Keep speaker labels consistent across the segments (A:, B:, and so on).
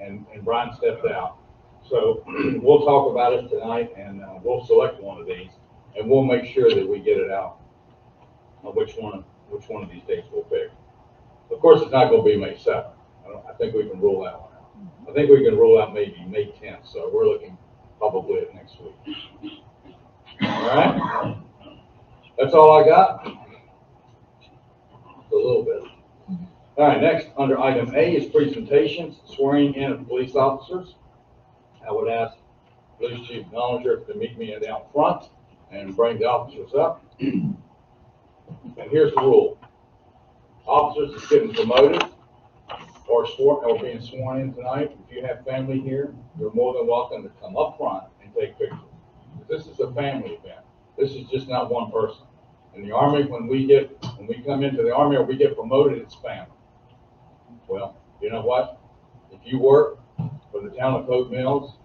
A: and, and Brian stepped out. So we'll talk about it tonight and, uh, we'll select one of these and we'll make sure that we get it out. On which one, which one of these dates we'll pick. Of course, it's not gonna be May seventh. I don't, I think we can rule that one out. I think we can rule out maybe May tenth, so we're looking probably at next week. All right? That's all I got. A little bit. All right, next, under item A is presentations, swearing in of police officers. I would ask Police Chief Doninger to meet me down front and bring the officers up. And here's the rule. Officers that's getting promoted or sworn, or being sworn in tonight, if you have family here, you're more than welcome to come up front and take pictures. This is a family event. This is just not one person. In the Army, when we get, when we come into the Army or we get promoted, it's family. Well, you know what? If you work for the town of Pope Mills,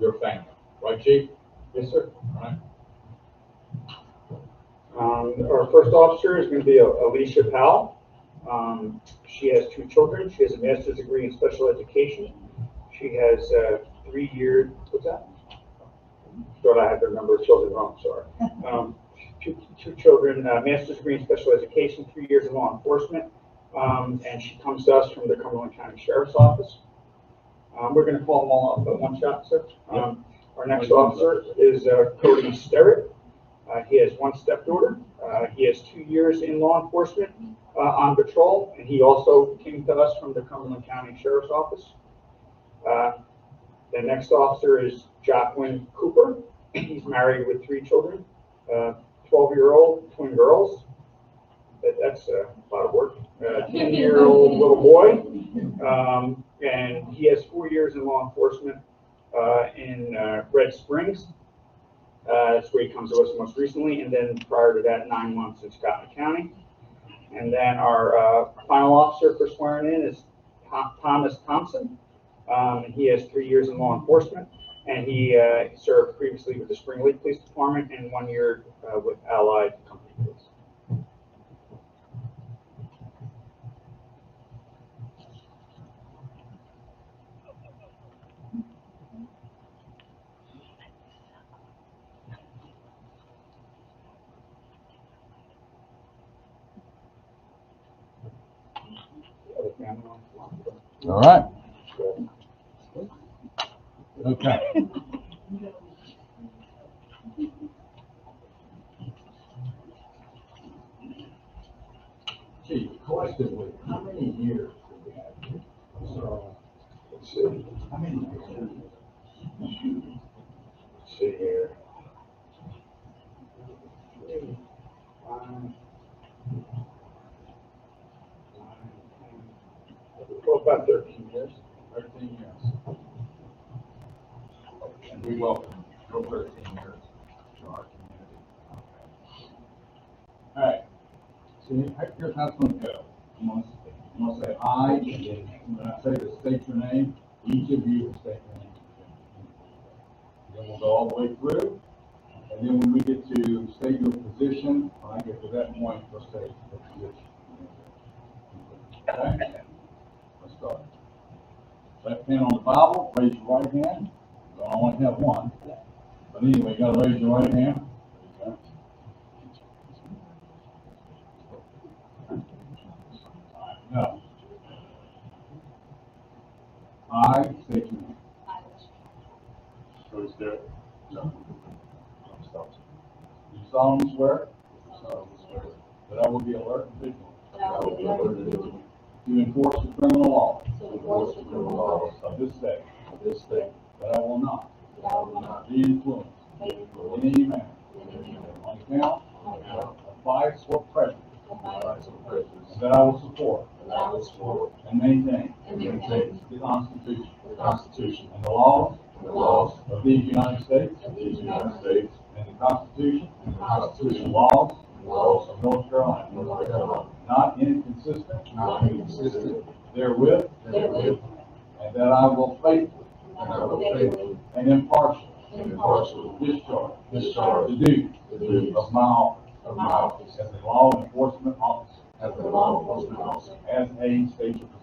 A: you're family, right, chief? Yes, sir. Right?
B: Um, our first officer is gonna be Alicia Powell. Um, she has two children. She has a master's degree in special education. She has, uh, three years. what's that? Thought I had the number of children wrong, sorry. Um, two, two children, uh, master's degree in special education, three years in law enforcement. Um, and she comes to us from the Cumberland County Sheriff's Office. Um, we're gonna call them all up at one shot, sir. Um, our next officer is uh, Cody Sterrett. Uh, he has one stepdaughter. Uh, he has two years in law enforcement, uh, on patrol, and he also came to us from the Cumberland County Sheriff's Office. Uh, the next officer is Jacqueline Cooper. He's married with three children, uh, twelve-year-old twin girls. That, that's uh, a lot of work. Uh, ten-year-old little boy. Um, and he has four years in law enforcement, uh, in, uh, Red Springs. Uh, that's where he comes to us most recently, and then prior to that, nine months in Scotland County. And then our, uh, final officer for swearing in is Tho- Thomas Thompson. Um, he has three years in law enforcement, and he, uh, served previously with the Spring Lake Police Department and one year, uh, with Allied Company Police. The other family on the line, but-
A: All right. Okay. Gee, collectively, how many years do we have here? So, let's see, how many years? Let's see here.
B: Um,
A: Well, about thirteen years. Thirteen years. And we welcome your thirteen years to our community. All right. See, here's how it's gonna go. I'm gonna, I'm gonna say aye, and then when I say to state your name, each of you will state your name. Then we'll go all the way through, and then when we get to state your position, when I get to that point, we'll state the position. Okay? Let's start. Left hand on the Bible, raise your right hand. I only have one. But anyway, you gotta raise your right hand. Okay. All right, Now. I state your name.
C: Cody Sterrett.
A: Do solemnly swear
C: solemnly swear
A: that I will be alert and vigilant
C: that I will be alert and vigilant
A: to enforce the criminal law
C: to enforce the criminal laws
A: of this state,
C: of this state,
A: that I will not
C: that I will not
A: be influenced
C: be influenced
A: in any manner
C: in any manner
A: on account
C: on account
A: of bias or prejudice
C: of my rights and privileges,
A: And That I will support
C: and that I will support
A: and maintain
C: and maintain
A: the Constitution
C: the Constitution
A: and the laws
C: and the laws
A: of these United States
C: of these United States
A: and the Constitution
C: and the
A: and
C: Constitution
A: laws
C: and laws
A: of North Carolina,
C: of North Carolina,
A: not inconsistent
C: not inconsistent
A: therewith,
C: therewith,
A: and that I will faithfully
C: and I will faithfully
A: and impartially
C: and impartially
A: discharge
C: discharge
A: the duties
C: the duties
A: of my office
C: of my office
A: as a law enforcement officer
C: as a law enforcement officer
A: as a state official.